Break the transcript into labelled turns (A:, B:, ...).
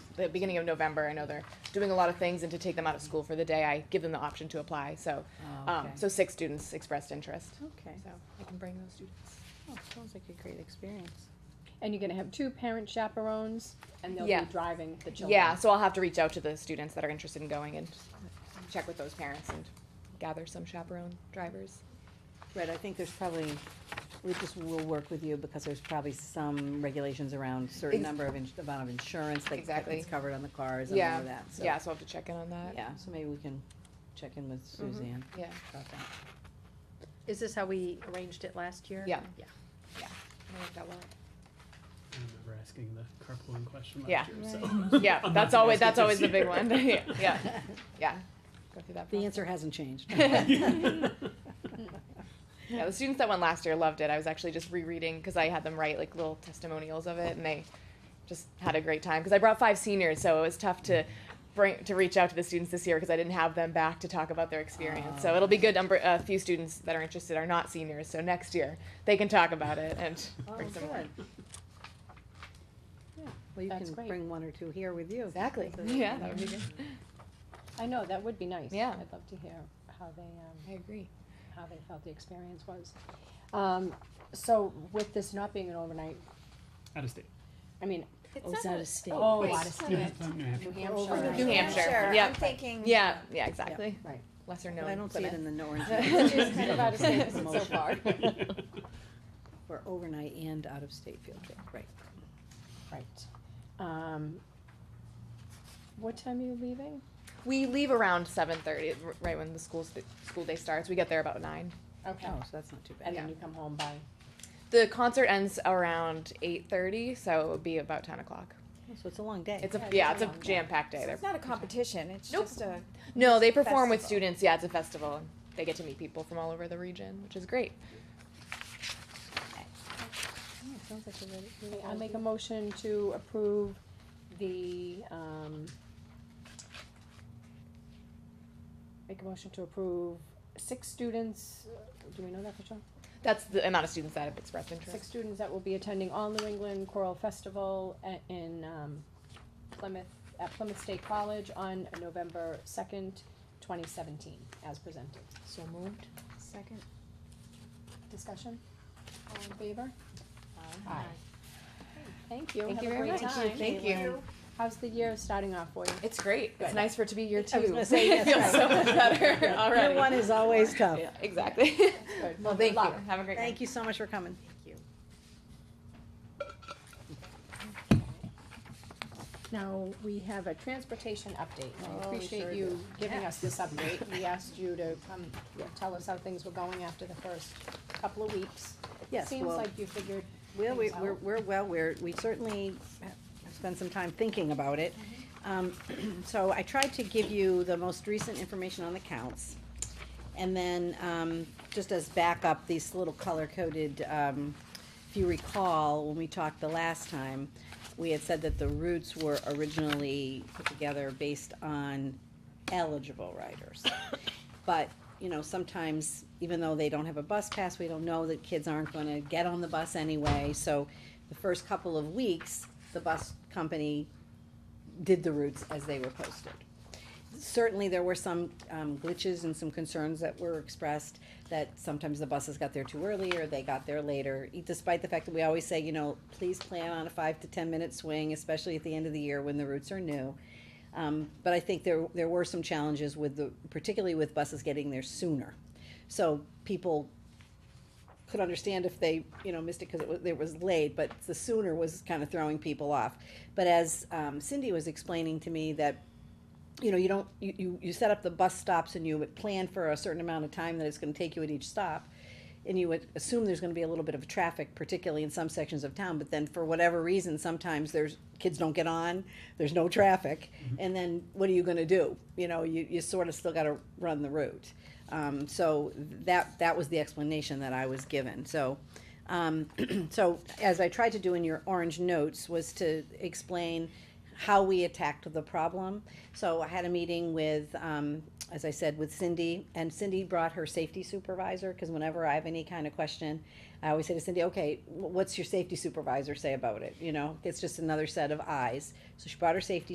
A: the beginning of November. I know they're doing a lot of things, and to take them out of school for the day, I give them the option to apply. So,
B: Oh,
A: um, so six students expressed interest.
C: Okay,
A: So I can bring those students.
C: oh, sounds like a great experience.
B: And you're gonna have two parent chaperones, and they'll
A: Yeah.
B: be driving the children.
A: Yeah, so I'll have to reach out to the students that are interested in going and check with those parents and gather some chaperone drivers.
C: Right, I think there's probably, we just will work with you because there's probably some regulations around certain
A: Ex-
C: number of, ins- amount of insurance that
A: Exactly.
C: that's covered on the cars and all
A: Yeah,
C: of that, so.
A: yeah, so I'll have to check in on that.
C: Yeah, so maybe we can check in with
A: Mm-hmm.
C: Suzanne
A: Yeah,
C: about that.
D: Is this how we arranged it last year?
A: Yeah.
D: Yeah.
A: I like that one.
E: I remember asking the carpooling question
A: Yeah.
E: last year, so.
A: yeah,
E: I'm
A: that's
E: not
A: always,
E: gonna
A: that's always
E: ask
A: the
E: it
A: big
E: this
A: one, yeah, yeah, yeah. Go through that
C: The
A: process.
C: answer hasn't changed.
E: year.
A: Yeah, the students that went last year loved it. I was actually just rereading because I had them write like little testimonials of it, and they just had a great time. Because I brought five seniors, so it was tough to bring to reach out to the students this year because I didn't have them back to talk about their experience. so it'll be good. Number a few students that are interested are not seniors, so next year they can talk about it and bring some. more.
C: Yeah, Well, you
B: That's
C: can
B: great.
C: bring one or two here with you.
A: Exactly. Yeah, that would be good.
B: I know, that would be nice.
A: Yeah.
B: I'd love to hear how they, um,
A: I agree.
B: how they felt the experience was. Um, so with this not being an overnight,
E: Out of state.
B: I mean,
C: Oh, it's out of state.
B: oh,
D: wait.
B: out of
E: New
B: state,
E: Hampshire, New Hampshire.
B: New
A: New
B: Hampshire.
A: Hampshire. yep.
F: I'm thinking.
A: Yeah, yeah, exactly.
B: right.
A: Lesser known.
C: I don't see it
A: Plymouth.
C: in the orange.
B: It's just kind of out of state 'cause it's so
C: Motion.
B: far.
C: For overnight and out-of-state field trip, right.
B: Right. Um, what time are you leaving?
A: We leave around seven thirty, right when the school st- school day starts. We get there about nine.
B: Okay.
C: Oh, so that's not too bad.
B: And then you come home by,
A: The concert ends around eight thirty, so it would be about ten o'clock.
C: So it's a long day.
A: It's a
B: Yeah,
A: yeah,
B: it's
A: it's
B: a
A: a
B: long day.
A: jam packed day. They're-
F: It's not a competition, it's
A: Nope.
F: just a,
A: No, they perform with
F: festival.
A: students. Yeah, it's a festival. and They get to meet people from all over the region, which is great.
C: sounds like a really,
B: Okay, I make a motion to approve the, um, make a motion to approve six students, uh, do we know that for sure?
A: That's the amount of students that have expressed
B: Six
A: interest.
B: students that will be attending All New England Choral Festival a- in, um, Plymouth, at Plymouth State College on November second, twenty seventeen, as presented.
C: So moved?
F: second,
B: Discussion? All in favor? Aye. Thank you.
A: Thank you
B: Have a
A: very
B: great
A: much.
B: time.
A: Thank you.
B: How's the year starting off for you?
A: It's great. It's
B: Good.
A: nice for it to be year two.
C: I was gonna say,
A: it feels
C: that's
A: so
C: right.
A: much better already.
C: Year one is always tough.
A: Yeah, exactly.
B: Good.
A: Well,
B: Good
A: thank you.
B: luck.
A: Have a great night.
C: Thank you so much for coming. Thank you.
B: Now, we have a transportation update.
C: Oh,
B: I
C: we
B: appreciate
C: sure
B: you
C: do.
B: giving us this update. We asked you to come tell us how things were going after the first couple of weeks.
C: Yes,
B: Seems
C: well-
B: like you figured
C: Well, we,
B: things
C: we're,
B: out.
C: we're, well, we're, we certainly have spent some time thinking about it. Um, so I tried to give you the most recent information on the counts. And then, um, just as backup, these little color-coded, um, if you recall, when we talked the last time, we had said that the routes were originally put together based on eligible riders. But, you know, sometimes, even though they don't have a bus pass, we don't know that kids aren't gonna get on the bus anyway, so the first couple of weeks, the bus company did the routes as they were posted. Certainly, there were some um, glitches and some concerns that were expressed, that sometimes the buses got there too early or they got there later, e, despite the fact that we always say, you know, please plan on a five to ten-minute swing, especially at the end of the year when the routes are new. Um, but I think there, there were some challenges with the, particularly with buses getting there sooner. So people could understand if they, you know, missed it because it was, it was late, but the sooner was kind of throwing people off. But as um, Cindy was explaining to me that, you know, you don't, you, you, you set up the bus stops and you would plan for a certain amount of time that it's gonna take you at each stop. And you would assume there's gonna be a little bit of traffic, particularly in some sections of town, but then for whatever reason, sometimes there's, kids don't get on, there's no traffic. And then what are you gonna do? You know, you, you sort of still gotta run the route. Um, so that, that was the explanation that I was given, so. Um, so as I tried to do in your orange notes was to explain how we attacked the problem. So I had a meeting with, um, as I said, with Cindy, and Cindy brought her safety supervisor, because whenever I have any kind of question, I always say to Cindy, okay, wh- what's your safety supervisor say about it? You know, it's just another set of eyes. So she brought her safety